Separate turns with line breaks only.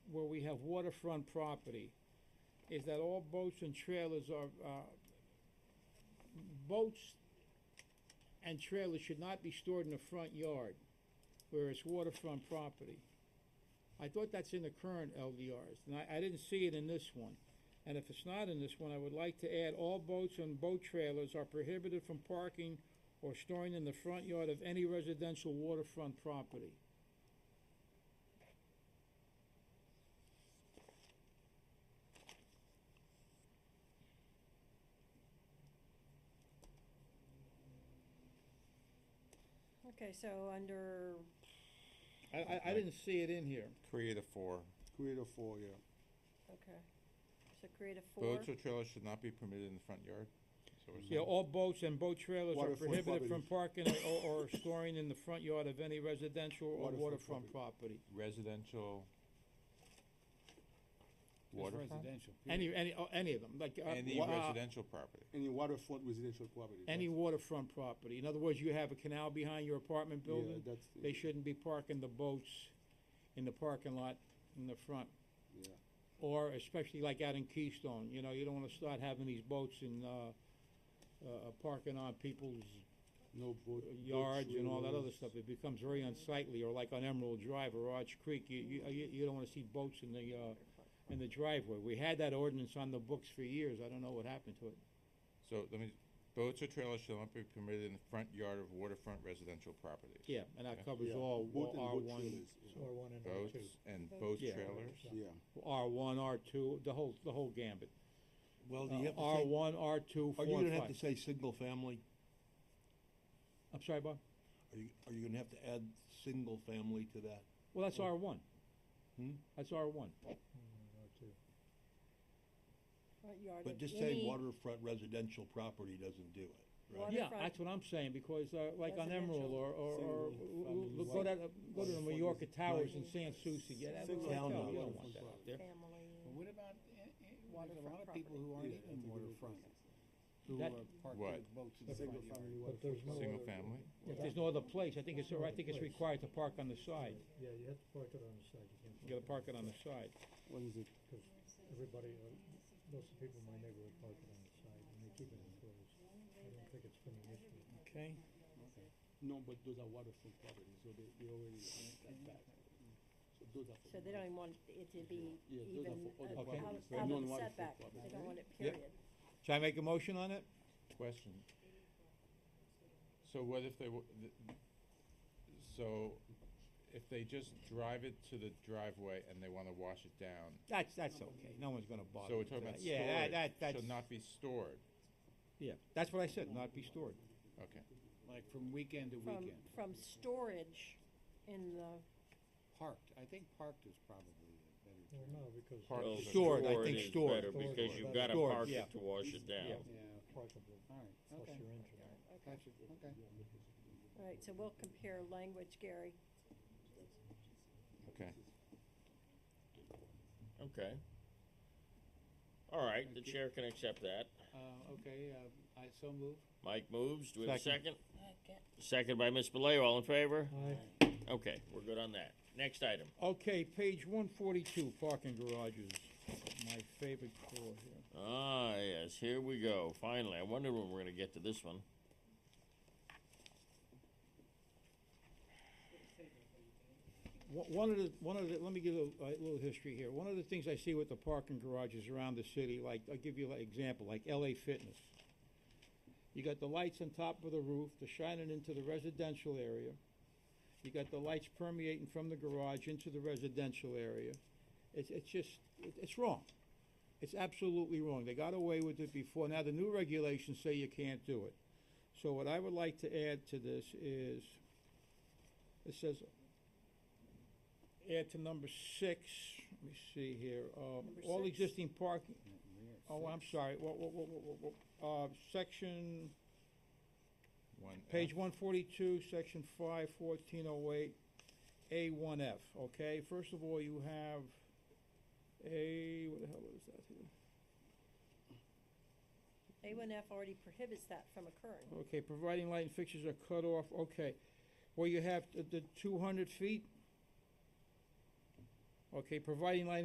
we have waterfront property, is that all boats and trailers are, uh, boats and trailers should not be stored in the front yard where it's waterfront property. I thought that's in the current LDRs, and I, I didn't see it in this one. And if it's not in this one, I would like to add, all boats and boat trailers are prohibited from parking or storing in the front yard of any residential waterfront property.
Okay, so under,
I, I, I didn't see it in here.
Create a four.
Create a four, yeah.
okay, so create a four.
Boats or trailers should not be permitted in the front yard. So we're
Yeah,
saying,
all boats and boat trailers are
Waterfront
prohibited from parking or, or storing in the front yard of any residential or
Waterfront
waterfront property.
residential waterfront,
Residential.
Any, any, oh, any of them, like, uh,
any
wa- uh,
residential property.
Any waterfront residential property.
any
that's-
waterfront property. In other words, you have a canal behind your apartment
yeah,
building,
that's-
they shouldn't be parking the boats in the parking lot in the front.
Yeah.
Or especially like out in Keystone, you know, you don't wanna start having these boats and, uh, uh, parking on people's
No boat. boat
Uh, yards and all that other
trailers.
stuff, it becomes very unsightly, or like on Emerald Drive or Arch Creek, you, you, you, you don't wanna see boats in the, uh, in the driveway. We had that ordinance on the books for years, I don't know what happened to it.
So let me, boats or trailers shall not be permitted in the front yard of waterfront residential properties.
Yeah, and that covers
Yeah,
all,
boat and
R
boat
one,
trailers, yeah.
R one and R
Boats
two.
and boat
Yeah.
trailers.
Yeah,
R one, R two, the whole, the whole gambit. Uh,
Well,
Uh,
do you have
R
to
one, R two,
say,
four
are you
and
gonna have
five.
to say single family?
I'm sorry, Bob?
Are you, are you gonna have to add single family to that?
Well, that's R one.
Oh. Hmm?
That's R one.
Front yard
But
of
just saying
any-
waterfront residential property doesn't do it, right?
Water-
Yeah,
Waterfront
that's what I'm saying, because, uh, like on
residential.
Emerald or, or, or, w-
Single
w-
family
look, go
dwelling.
to, go to the
Waterfront
Mallorca Towers in
residential.
San Souci, yeah, that's a
Single
hotel,
family
you don't want
waterfront
that out
property.
there.
Family,
What about, eh, eh, there's a
Waterfront
lot of people
property.
who aren't
Yeah,
even
that's a good
waterfront,
point.
who
That-
are parked
What?
their boats in the front
single
yard.
family
But
waterfront.
there's no
Single
other-
family.
If there's no other place, I think it's, I think it's required to park on the side,
Yeah, you have to park it on the side, you can't.
you gotta park it on the side.
What is it?
Because everybody, uh, most of the people in my neighborhood park it on the side, and they keep it enclosed. I don't think it's been an issue.
Okay.
No, but those are waterfront properties, so they, they already rent that back. So those are.
so
for
they don't even want it to be
Yeah, those are
even
for other
uh,
Okay.
out
properties,
of-
they're
out of the
non-waterfront
setback, they
properties.
don't want it
Yeah.
period.
Should I make a motion on it?
Question. So what if they, wa- th- so if they just drive it to the driveway and they wanna wash it down?
That's, that's okay, no one's gonna bother
So we're
with
talking
that.
about
Yeah, that- that,
storage,
that's,
should not be stored.
yeah, that's what I said, not be stored.
Okay.
Like from weekend to
From,
weekend,
from storage in the,
parked, I think parked is probably a better
Well,
term.
no, because.
Park
Well,
is a-
Stored, I
stored
think
is
stored.
better Because you
Stored,
gotta
stored,
park
yeah.
it to wash it down.
Yeah.
Yeah,
Parkable,
all right,
plus
okay,
your engine.
gotcha, okay.
all right, so we'll compare language, Gary.
Okay.
Okay. All right, the
Thank you.
chair can accept that.
Uh, okay, uh, I so move.
Mike moves, do we have a
Second.
second? Second by Ms. Belay, all in favor?
Aye.
Okay, we're good on that. Next item.
Okay, page one forty-two, parking garages, my favorite call here.
Ah, yes, here we go, finally. I wondered when we're gonna get to this one.
One- One of the, one of the, let me give a, a little history here. One of the things I see with the parking garages around the city, like, I'll give you an example, like LA Fitness. You got the lights on top of the roof, they're shining into the residential area. You got the lights permeating from the garage into the residential area. It's, it's just, it- it's wrong. It's absolutely wrong. They got away with it before. Now, the new regulations say you can't do it. So what I would like to add to this is, it says, add to number six, let me see here, um,
Number
all
six.
existing parking,
We're at
oh, I'm
six.
sorry, wha- wha- wha- wha- wha- uh, section,
One F.
Page one forty-two, section five, fourteen oh eight, A one F, okay? First of all, you have A, what the hell is that here?
A one F already prohibits that from occurring.
Okay, providing light and fixtures are cut off, okay. Well, you have the, the two hundred feet. Okay, providing light